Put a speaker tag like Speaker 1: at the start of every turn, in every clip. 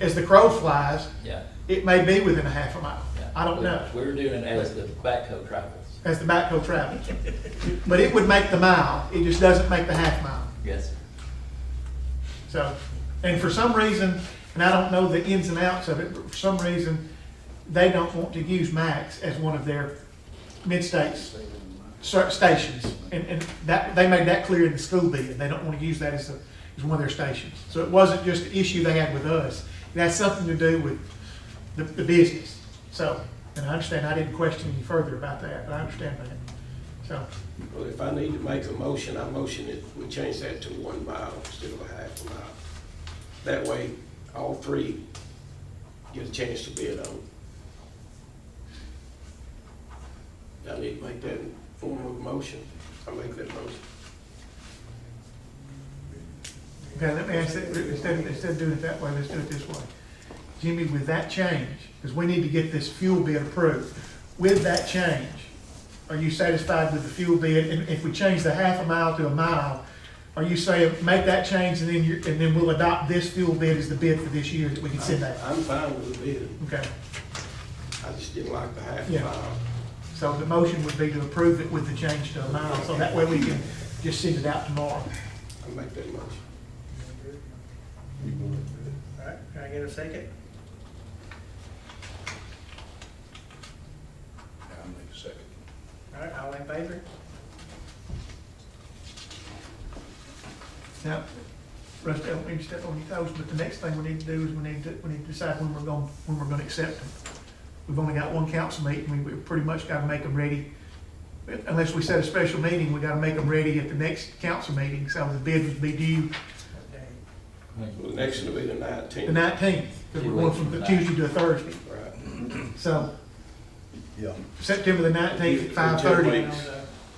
Speaker 1: As the crow flies,
Speaker 2: Yeah,
Speaker 1: it may be within a half a mile.
Speaker 2: yeah.
Speaker 1: I don't
Speaker 2: We-
Speaker 1: know,
Speaker 2: We were doing it as the backhoe travels.
Speaker 1: as the backhoe travels. But it would make the mile, it just doesn't make the half mile.
Speaker 2: Yes, sir.
Speaker 1: So, and for some reason, and I don't know the ins and outs of it, but for some reason, they don't want to use Max as one of their mid-states cer- stations. And, and that, they made that clear in the school bid, they don't want to use that as, a- as one of their stations. So it wasn't just an issue they had with us, it had something to do with the, the business. So, and I understand, I didn't question any further about that, but I understand that. So,
Speaker 3: Well, if I need to make a motion, I motion it, we change that to one mile instead of a half a mile. That way, all three get a chance to bid on. it. I need to make that in form of a motion. I make that motion.
Speaker 1: Okay, let me ask that, instead of, instead of doing it that way, let's do it this way. Jimmy, with that change, because we need to get this fuel bid approved, with that change, are you satisfied with the fuel bid? And if we change the half a mile to a mile, are you saying, make that change and then you, and then we'll adopt this fuel bid as the bid for this year that we can send out?
Speaker 3: I'm fine with the bid.
Speaker 1: Okay,
Speaker 3: I just didn't like the half
Speaker 1: Yeah.
Speaker 3: mile.
Speaker 1: so the motion would be to approve it with the change to a mile, so that way we can just send it out tomorrow.
Speaker 3: I make that motion.
Speaker 4: All right, can I get a second?
Speaker 5: I'll make a second.
Speaker 4: All right, all in favor?
Speaker 1: Now, Rusty, I don't mean to step on your toes, but the next thing we need to do is we need to, we need to decide when we're going, when we're gonna accept them. We've only got one council meeting, we, we pretty much gotta make them ready. Unless we set a special meeting, we gotta make them ready at the next council meeting, so the bid would be due
Speaker 4: Okay.
Speaker 3: Well, the next one will be the
Speaker 1: the
Speaker 3: nineteenth.
Speaker 1: nineteenth, because we're going from the Tuesday to a Thursday.
Speaker 3: Right.
Speaker 1: So
Speaker 5: Yeah.
Speaker 1: September the nineteenth at five
Speaker 3: Two
Speaker 1: thirty.
Speaker 3: weeks.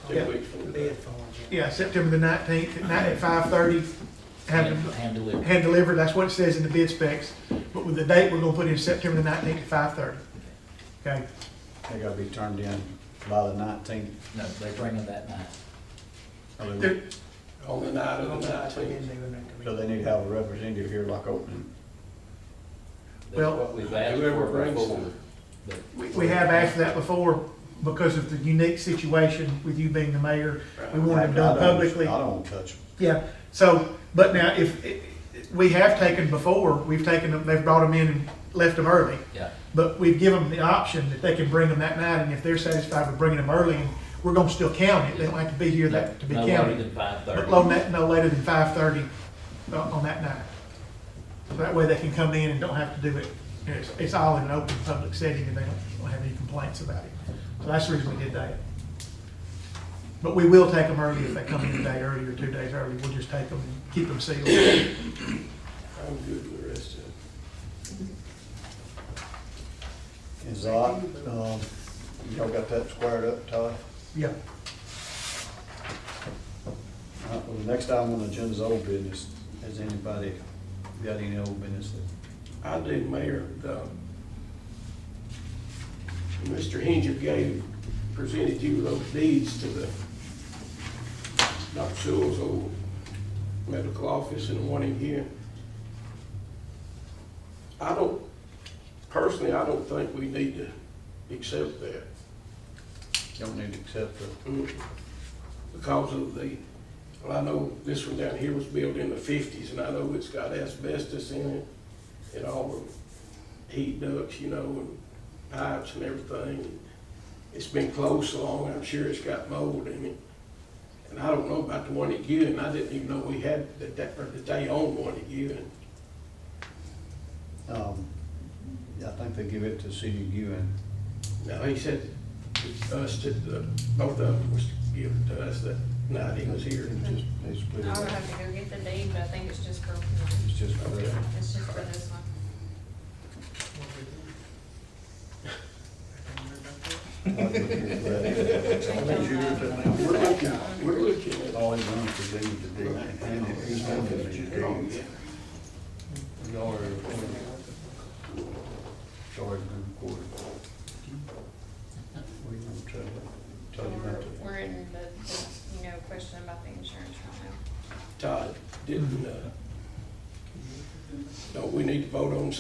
Speaker 3: Two
Speaker 1: Yeah.
Speaker 3: weeks from
Speaker 4: The
Speaker 3: today.
Speaker 4: bid form, yeah.
Speaker 1: Yeah, September the nineteenth, at night at five thirty, have
Speaker 2: hand
Speaker 1: them
Speaker 2: hand delivered.
Speaker 1: hand delivered, that's what it says in the bid specs, but with the date, we're gonna put in September the nineteenth at five thirty. Okay,
Speaker 5: They gotta be turned in by the nineteenth.
Speaker 2: No, they bring them that night.
Speaker 5: So
Speaker 1: There-
Speaker 3: On the night
Speaker 4: Oh,
Speaker 3: of the
Speaker 4: no, we
Speaker 3: nineteenth.
Speaker 4: didn't do it at the
Speaker 5: they
Speaker 4: meeting.
Speaker 5: need to have a representative here like opening.
Speaker 2: That's
Speaker 1: Well-
Speaker 2: what We've asked
Speaker 3: Whoever
Speaker 2: for
Speaker 3: brings
Speaker 2: before.
Speaker 3: them.
Speaker 2: but-
Speaker 1: we, we have asked for that before because of the unique situation with you being the mayor. We want
Speaker 5: I
Speaker 1: it
Speaker 5: don't-
Speaker 1: done publicly.
Speaker 5: I don't wanna touch them.
Speaker 1: Yeah, so, but now if, it- it- we have taken before, we've taken them, they've brought them in and left them early.
Speaker 2: Yeah,
Speaker 1: But we've given them the option that they can bring them that night and if they're satisfied with bringing them early, we're gonna still count it. They don't have to be here that, to be
Speaker 2: no later
Speaker 1: counted.
Speaker 2: than five
Speaker 1: But
Speaker 2: thirty.
Speaker 1: low net, no later than five thirty uh, on that night. So That way they can come in and don't have to do it. It's, it's all in an open public setting and they don't, don't have any complaints about it. So that's the reason we did that. But we will take them early if they come in a day early or two days early. We'll just take them and keep them sealed.
Speaker 3: I'm good with the rest of it.
Speaker 5: Is that, um, y'all got that squared up, Todd?
Speaker 1: Yeah,
Speaker 5: Uh, well, the next item on the agenda is old business. Has anybody got any old business that?
Speaker 3: I do, Mayor, the, Mr. Hinger gave, presented you those deeds to the Dr. Sewell's old medical office and the one in here. I don't, personally, I don't think we need to accept that
Speaker 5: Don't need to accept the,
Speaker 3: because of the, well, I know this one down here was built in the fifties, and I know it's got asbestos in it, and all the heat ducts, you know, and pipes and everything. It's been closed so long, I'm sure it's got mold in it. And I don't know about the one at Ewing, I didn't even know we had, that, that, or that they owned one at Ewing.
Speaker 5: um, I think they give it to City of Ewing.
Speaker 3: Now, he said, it's us to, the- both of them was given to us that night he was here.
Speaker 5: It's just, they split it
Speaker 6: I
Speaker 5: up.
Speaker 6: would have to go get the deed, but I think it's just for, one.
Speaker 5: It's just for
Speaker 3: Okay.
Speaker 5: that.
Speaker 6: it's just for this one.
Speaker 3: We're looking, we're looking at
Speaker 5: All he wants is leave the deed, and if he's going to leave the deed, y'all are recording. Y'all are recording. We gonna tell you, tell you
Speaker 6: We're,
Speaker 5: about the.
Speaker 6: we're in the, the, you know, question about the insurance right now.
Speaker 3: Todd, didn't, uh, don't we need to vote on